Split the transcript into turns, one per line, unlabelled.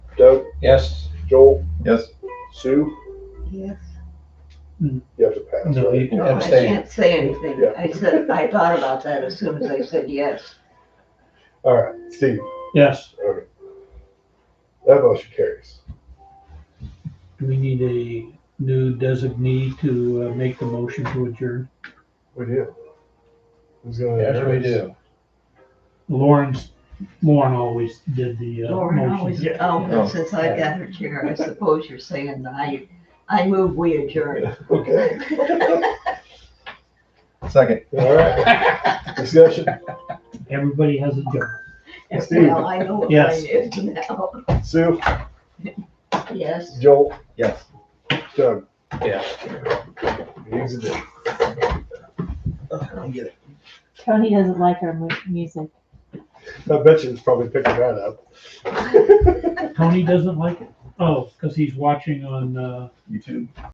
Doug,
Yes.
Joel,
Yes.
Sue,
Yes.
you have to pass.
No,
right?
you can
No, I
abstain.
can't say anything.
Yeah.
I said, I thought about that as soon as I said yes.
All right, Steve,
Yes.
okay. That motion carries.
Do we need a new designee to uh, make the motion to adjourn?
We do. Who's gonna?
Yes, we do.
Lauren's, Lauren always did the uh,
Lauren always,
motion.
oh,
Yeah.
but since I got her chair, I suppose you're saying that I, I move we adjourn.
Okay,
Second.
all right. Discussion,
Everybody has a job.
Steve.
Well, I know what mine
Yes.
is now.
Sue,
Yes.
Joel,
Yes.
Doug,
Yeah.
he's a dude.
Tony doesn't like our mu- music.
I bet you it's probably picking that up.
Tony doesn't like it? Oh, because he's watching on, uh,
You too.